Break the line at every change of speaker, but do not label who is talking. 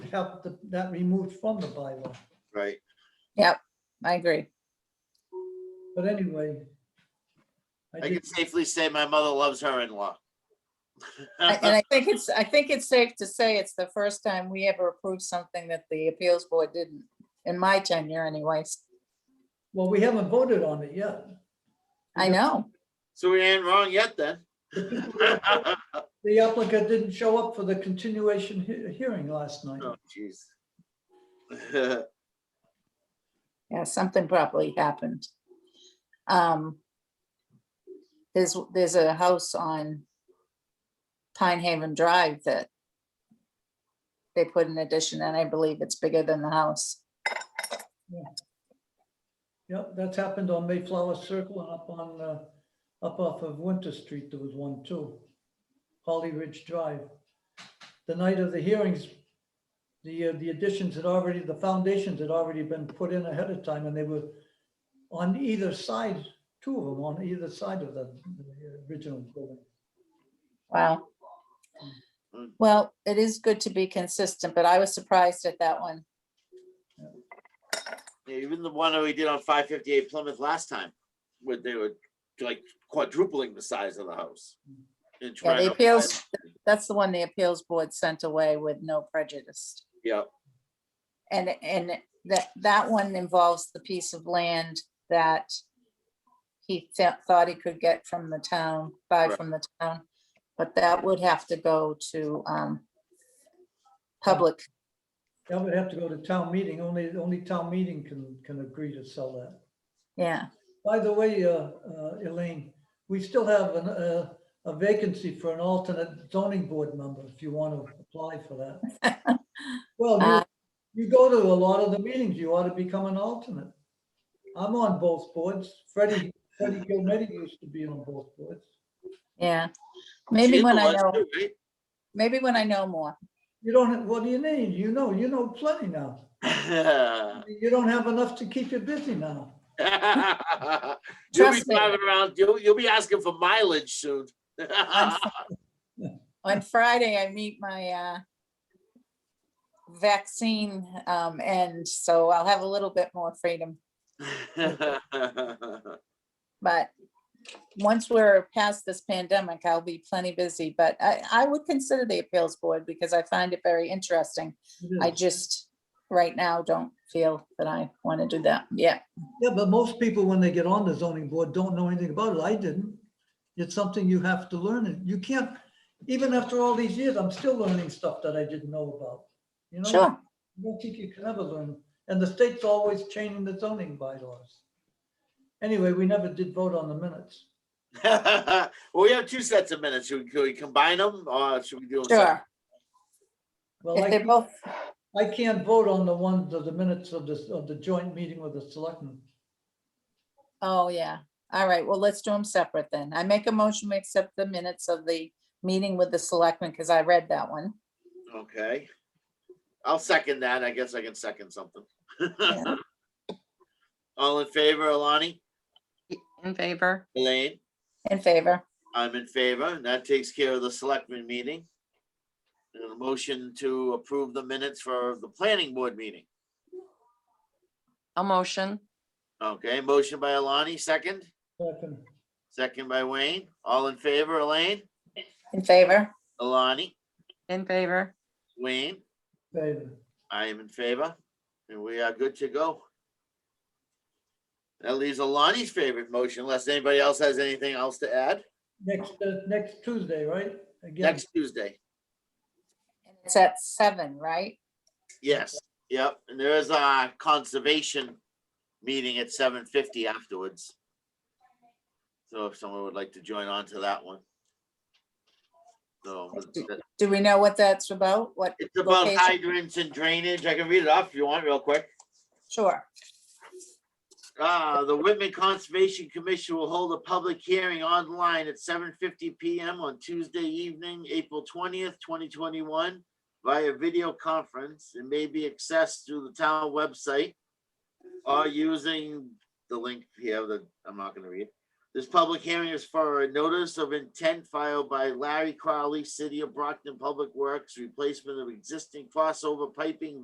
have the- that removed from the bylaw.
right?
I agree.
But anyway. I
I
think,
can safely say my mother loves her in-law.
I- And I think it's, I think it's safe to say it's the first time we ever approved something that the appeals board didn't, in my tenure anyways.
well, we haven't voted on it yet.
I know.
So we ain't wrong yet then.
The applicant didn't show up for the continuation he- hearing last night.
Oh, jeez.
Yeah, something probably happened. Um, there's, there's a house on Pine Haven Drive that they put an addition and I believe it's bigger than the house.
Yep, that's happened on Mayflower Circle and up on, uh, up off of Winter Street, there was one too. Holly Ridge Drive. The night of the hearings, the, uh, the additions had already, the foundations had already been put in ahead of time and they were on either side, two of them on either side of the the original building.
Wow.
Mm.
Well, it is good to be consistent, but I was surprised at that one.
Even the one that we did on five fifty-eight Plymouth last time, where they were like quadrupling the size of the house. and
Yeah,
trying
the
to-
appeals, that's the one the appeals board sent away with no prejudice.
Yeah,
And, and that, that one involves the piece of land that he th- thought he could get from the town, buy
Right.
from the town, but that would have to go to, um, public,
That would have to go to town meeting, only, only town meeting can, can agree to sell that.
yeah.
By the way, uh, uh, Elaine, we still have an, uh, a vacancy for an alternate zoning board member if you want to apply for that. Well,
Uh.
you, you go to a lot of the meetings, you ought to become an alternate. I'm on both boards. Freddie, Freddie Gilmedi used to be on both boards.
Yeah, maybe
She's
when
the
I
one
know,
too, right?
maybe when I know more.
You don't, what do you need? You know, you know plenty now. You don't have enough to keep you busy now.
You'll be
Trust me.
driving around, you'll, you'll be asking for mileage soon.
On Friday, I meet my uh, vaccine, um, and so I'll have a little bit more freedom. But once we're past this pandemic, I'll be plenty busy. But I, I would consider the appeals board because I find it very interesting.
It is.
I just, right now, don't feel that I want to do that. Yeah,
Yeah, but most people, when they get on the zoning board, don't know anything about it. I didn't. It's something you have to learn and you can't, even after all these years, I'm still learning stuff that I didn't know about. You know,
sure.
I don't think you can ever learn. And the state's always changing the zoning bylaws. Anyway, we never did vote on the minutes.
Well, we have two sets of minutes. Should we, could we combine them or should we do them?
Sure.
Well,
If they're
I,
both,
I can't vote on the ones of the minutes of this, of the joint meeting with the selectmen.
oh, yeah. All right. Well, let's do them separate then. I make a motion to accept the minutes of the meeting with the selectmen because I read that one.
separate? Okay. I'll second that. I guess I can second something.
Yeah.
All in favor, Alani?
In favor?
Elaine?
In favor.
I'm in favor. and That takes care of the selectmen meeting. And a motion to approve the minutes for the planning board meeting.
I'll motion.
Okay, motion by Alani, second,
Second,
second by Wayne. All in favor, Elaine?
In favor.
Alani,
In favor?
Wayne?
favor.
I am in favor, and we are good to go. That leaves Alani's favorite motion, unless anybody else has anything else to add,
Next, uh, next Tuesday, right? Again,
next Tuesday.
It's at seven, right?
Yes, yep, and there is a conservation meeting at seven fifty afterwards. So if someone would like to join on to that one. So it's-
Do we know what that's about? What,
it's about
Location.
hydrants and drainage. I can read it off if you want real quick.
sure.
Uh, the Whitman Conservation Commission will hold a public hearing online at seven fifty PM on Tuesday evening, April twentieth, twenty twenty-one via video conference. It may be accessed through the town website or using the link here that I'm not gonna read. This public hearing is for a notice of intent filed by Larry Crowley, City of Brockton Public Works, replacement of existing crossover piping